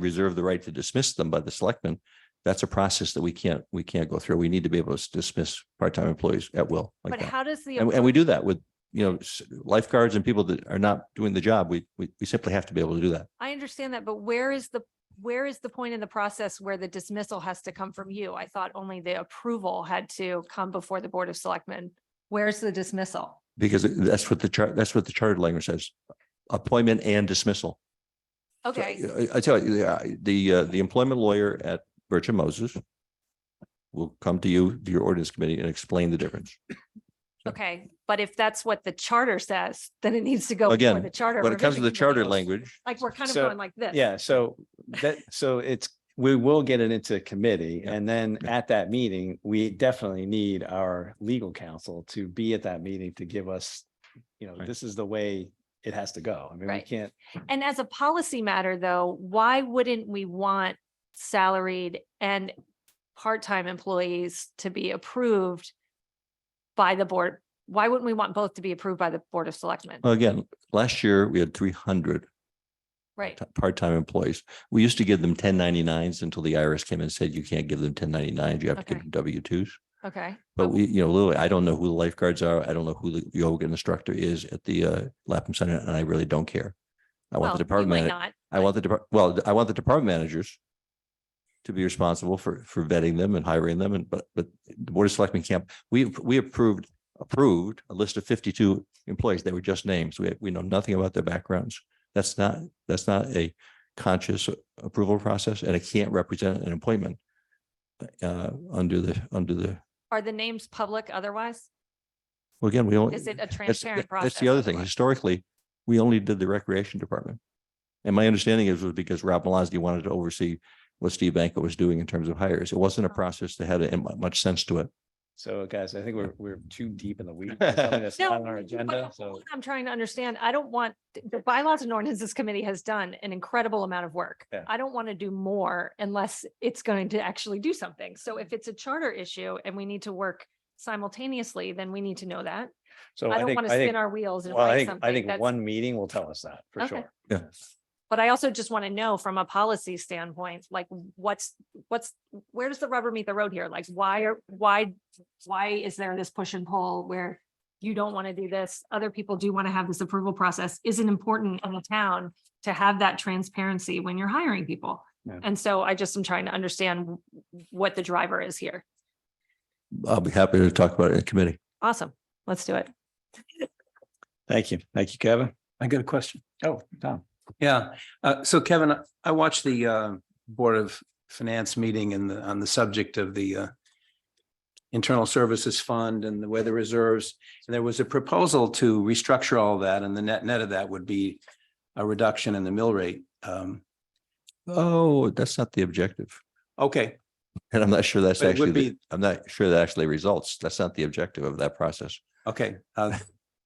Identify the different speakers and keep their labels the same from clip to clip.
Speaker 1: reserve the right to dismiss them by the selectmen. That's a process that we can't, we can't go through. We need to be able to dismiss part-time employees at will like
Speaker 2: But
Speaker 1: that.
Speaker 2: how does the,
Speaker 1: And, and we do that with, you know, s- lifeguards and people that are not doing the job. We, we, we simply have to be able to do that.
Speaker 2: I understand that, but where is the, where is the point in the process where the dismissal has to come from you? I thought only the approval had to come before the Board of Selectmen. Where's the dismissal?
Speaker 1: Because that's what the chart, that's what the charter language says. Appointment and dismissal. So,
Speaker 2: Okay,
Speaker 1: I I tell you, the, uh, the, uh, the employment lawyer at Birch and Moses will come to you, to your ordinance committee and explain the difference.
Speaker 2: okay. But if that's what the charter says, then it needs to go. before
Speaker 1: Again,
Speaker 2: the charter
Speaker 1: When it comes to
Speaker 2: revision
Speaker 1: the charter
Speaker 2: committee.
Speaker 1: language,
Speaker 2: Like, we're kind of
Speaker 3: So,
Speaker 2: going like this.
Speaker 3: Yeah, so that, so it's, we will get it into committee
Speaker 1: Yeah,
Speaker 3: and then
Speaker 1: yeah.
Speaker 3: at that meeting, we definitely need our legal counsel to be at that meeting to give us, you know,
Speaker 1: Right.
Speaker 3: this is the way it has to go. I mean, we
Speaker 2: Right.
Speaker 3: can't,
Speaker 2: And as a policy matter, though, why wouldn't we want salaried and part-time employees to be approved by the board? Why wouldn't we want both to be approved by the Board of Selectmen?
Speaker 1: well, again, last year we had three hundred
Speaker 2: Right,
Speaker 1: t- part-time employees. We used to give them ten ninety-nines until the IRS came and said, you can't give them ten ninety-nines. You have to give
Speaker 2: Okay.
Speaker 1: them W twos.
Speaker 2: okay.
Speaker 1: But
Speaker 2: Oh,
Speaker 1: we, you know, literally, I don't know who the lifeguards are. I don't know who the yoga instructor is at the uh, Lapham Center, and I really don't care. I
Speaker 2: Oh, well,
Speaker 1: want
Speaker 2: you
Speaker 1: the department,
Speaker 2: might
Speaker 1: manager.
Speaker 2: not.
Speaker 1: I want the, depart- well, I want the department managers to be responsible for, for vetting them and hiring them. And, but, but the Board of Selectmen camp, we, we approved, approved a list of fifty-two employees. They were just names. We, we know nothing about their backgrounds. That's not, that's not a conscious approval process and it can't represent an appointment uh, under the, under the,
Speaker 2: Are the names public otherwise?
Speaker 1: well, again, we only.
Speaker 2: Is it a
Speaker 1: That's,
Speaker 2: transparent
Speaker 1: that-
Speaker 2: process?
Speaker 1: that's the other thing.
Speaker 2: otherwise?
Speaker 1: Historically, we only did the recreation department. And my understanding is was because Rob Malazny wanted to oversee what Steve Banko was doing in terms of hires. It wasn't a
Speaker 2: Uh-huh.
Speaker 1: process that had a- mu- much sense to it.
Speaker 3: so guys, I think we're, we're too deep in the weeds. for something That's
Speaker 2: No,
Speaker 3: not on our
Speaker 2: but
Speaker 3: agenda,
Speaker 2: all
Speaker 3: so
Speaker 2: that I'm trying to understand, I don't want, the bylaws and ordinances committee has done an incredible amount of work.
Speaker 3: Yeah.
Speaker 2: I don't want to do more unless it's going to actually do something. So if it's a charter issue and we need to work simultaneously, then we need to know that.
Speaker 3: so
Speaker 2: I
Speaker 3: I
Speaker 2: don't
Speaker 3: think,
Speaker 2: want
Speaker 3: I
Speaker 2: to spin
Speaker 3: think,
Speaker 2: our wheels and
Speaker 3: well, I
Speaker 2: write
Speaker 3: think, I
Speaker 2: something
Speaker 3: think
Speaker 2: that's,
Speaker 3: one meeting will tell us that for
Speaker 2: Okay.
Speaker 3: sure.
Speaker 1: Yeah.
Speaker 2: but I also just want to know from a policy standpoint, like what's, what's, where does the rubber meet the road here? Like why are, why, why is there this push and pull where you don't want to do this, other people do want to have this approval process? Is it important in the town to have that transparency when you're hiring people?
Speaker 3: Yeah.
Speaker 2: And so I just am trying to understand what the driver is here.
Speaker 1: I'll be happy to talk about it in committee.
Speaker 2: Awesome. Let's do it.
Speaker 3: Thank you. Thank you, Kevin.
Speaker 4: I got a question.
Speaker 3: Oh, Tom.
Speaker 4: Yeah, uh, so Kevin, I watched the uh Board of Finance meeting and the, on the subject of the uh Internal Services Fund and the weather reserves. And there was a proposal to restructure all that and the net net of that would be a reduction in the mill rate. Um,
Speaker 1: Oh, that's not the objective.
Speaker 4: okay,
Speaker 1: And I'm not sure that's
Speaker 4: But it would
Speaker 1: actually, the-
Speaker 4: be-
Speaker 1: I'm not sure that actually results. That's not the objective of that process.
Speaker 4: okay, uh,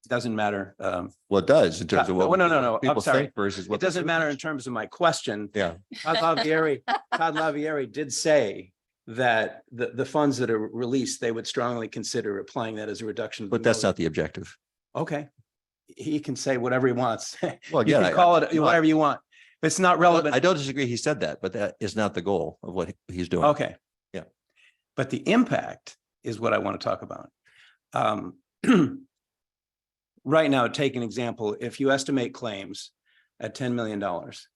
Speaker 4: doesn't matter. Um,
Speaker 1: Well, it does in terms of
Speaker 4: Uh,
Speaker 1: what.
Speaker 4: no,
Speaker 1: we-
Speaker 4: no, no, no. I'm
Speaker 1: People
Speaker 4: sorry.
Speaker 1: think versus what.
Speaker 4: it
Speaker 1: the
Speaker 4: doesn't
Speaker 1: truth
Speaker 4: matter in
Speaker 1: is.
Speaker 4: terms of my question.
Speaker 1: Yeah,
Speaker 4: Todd Lavieri, Todd Lavieri did say that the, the funds that are released, they would strongly consider applying that as a reduction. of the
Speaker 1: but that's
Speaker 4: mill
Speaker 1: not the objective.
Speaker 4: rate. Okay. He can say whatever he wants.
Speaker 1: Well,
Speaker 4: You
Speaker 1: again,
Speaker 4: can
Speaker 1: I-
Speaker 4: call it
Speaker 1: no, I-
Speaker 4: whatever you want. It's not
Speaker 1: I
Speaker 4: relevant.
Speaker 1: don't disagree. He said that, but that is not the goal of what he- he's doing.
Speaker 4: Okay.
Speaker 1: Yeah.
Speaker 4: But the impact is what I want to talk about. Um, Right now, take an example, if you estimate claims at ten million dollars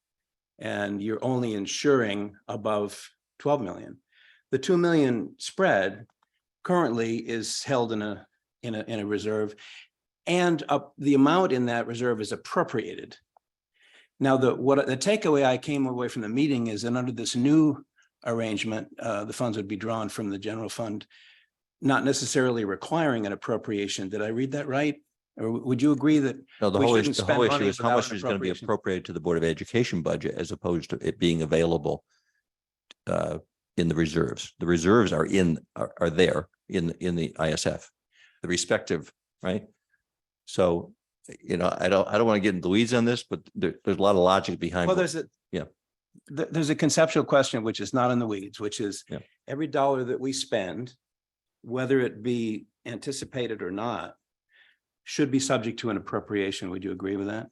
Speaker 4: and you're only insuring above twelve million, the two million spread currently is held in a, in a, in a reserve. And up, the amount in that reserve is appropriated. Now, the, what, the takeaway I came away from the meeting is that under this new arrangement, uh, the funds would be drawn from the general fund, not necessarily requiring an appropriation. Did I read that right? Or w- would you agree that,
Speaker 1: No, the
Speaker 4: We
Speaker 1: whole, issue-
Speaker 4: shouldn't
Speaker 1: the whole
Speaker 4: spend
Speaker 1: issue
Speaker 4: money
Speaker 1: is how much
Speaker 4: without an
Speaker 1: is going to be
Speaker 4: appropriation.
Speaker 1: appropriated to the Board of Education budget as opposed to it being available uh, in the reserves. The reserves are in, are, are there in, in the ISF, the respective, right? So, you know, I don't, I don't want to get into the weeds on this, but there, there's a lot of logic behind.
Speaker 4: well,
Speaker 1: what-
Speaker 4: there's a.
Speaker 1: Yeah.
Speaker 4: th- there's a conceptual question which is not in the weeds, which is
Speaker 1: Yeah.
Speaker 4: every dollar that we spend, whether it be anticipated or not, should be subject to an appropriation. Would you agree with that?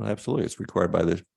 Speaker 1: Absolutely. It's required by the